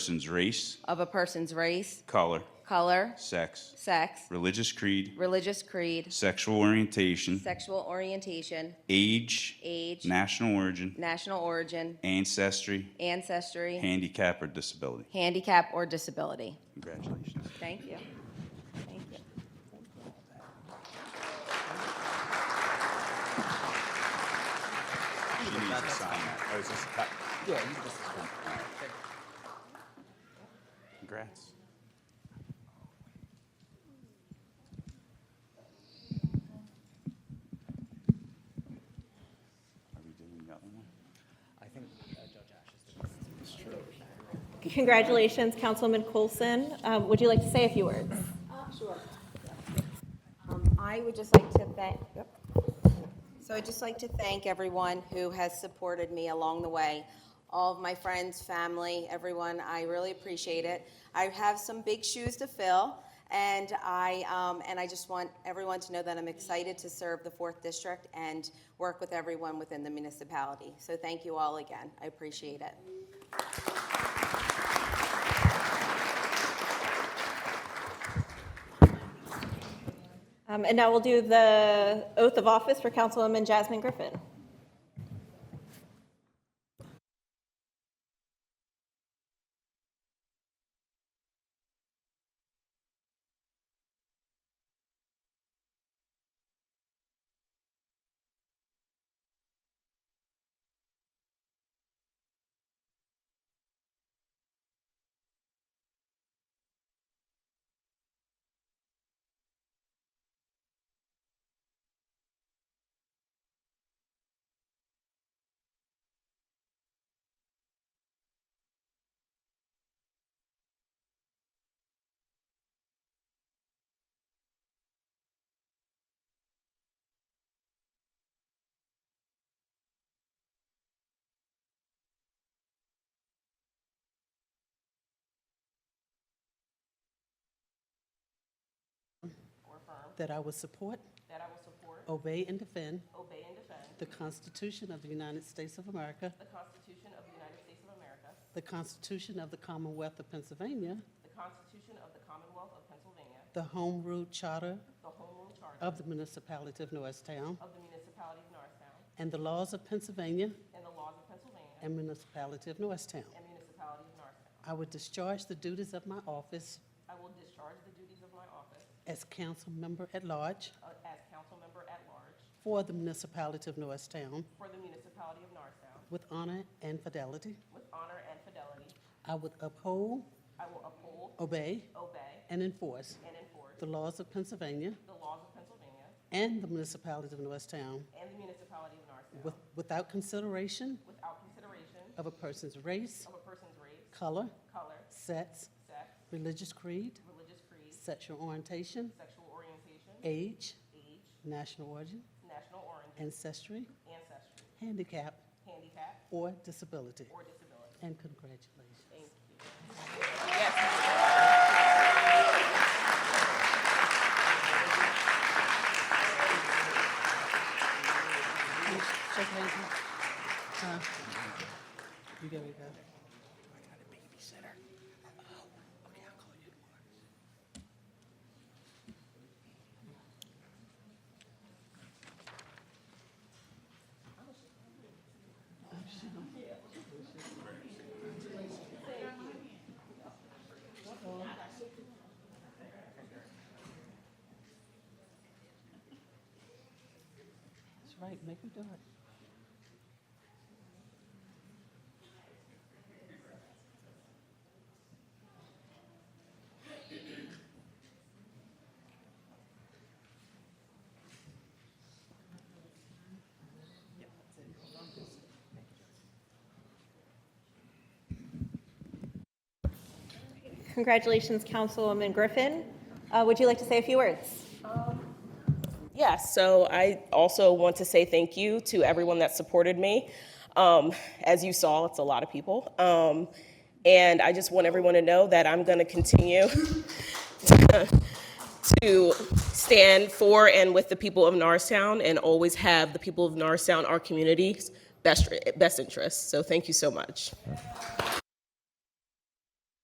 person's race, of a person's race, color, color, sex, sex, religious creed, religious creed, sexual orientation, sexual orientation, age, age, national origin, national origin, ancestry, ancestry, handicap, or disability. handicap, or disability. Congratulations. Thank you. Thank you. She needs to sign that. Oh, is this a cop? Yeah, you can just sign it. All right. Congrats. Are we doing the other one? Congratulations, Councilman Coulson. Um, Would you like to say a few words? Sure. Um, I would just like to thank, so I'd just like to thank everyone who has supported me along the way. All of my friends, family, everyone, I really appreciate it. I have some big shoes to fill, and I, um, and I just want everyone to know that I'm excited to serve the 4th District and work with everyone within the municipality. So thank you all again. I appreciate it. Um, And now we'll do the uh, oath of office for Councilwoman Jasmine Griffin. That I will support. That I will support. Obey and defend. Obey and defend. The Constitution of the United States of America. The Constitution of the United States of America. The Constitution of the Commonwealth of Pennsylvania. The Constitution of the Commonwealth of Pennsylvania, The Home Rule Charter the Home Rule Charter of the Municipality of Norristown. of the Municipality of Norristown, And the laws of Pennsylvania and the laws of Pennsylvania and Municipality of Norristown. and Municipality of Norristown. I will discharge the duties of my office I will discharge the duties of my office as council member at large uh, as council member at large for the Municipality of Norristown for the Municipality of Norristown with honor and fidelity. with honor and fidelity. I will uphold, I will uphold, obey, obey, and enforce and enforce the laws of Pennsylvania the laws of Pennsylvania and the municipalities of Norristown and the Municipality of Norristown with- without consideration without consideration of a person's race, of a person's race, color, color, sex, sex, religious creed, religious creed, sexual orientation, sexual orientation, age, age, national origin, national origin, ancestry, ancestry, handicap, handicap, or disability. or disability. And congratulations. Thank you. Shake hands. Huh? You gotta go. That's right, make her do it. Congratulations, Councilwoman Griffin. Uh, Would you like to say a few words? Yes, so I also want to say thank you to everyone that supported me. Um, as you saw, it's a lot of people. Um, and I just want everyone to know that I'm going to continue to stand for and with the people of Norristown and always have the people of Norristown, our community's best, best interests. So thank you so much.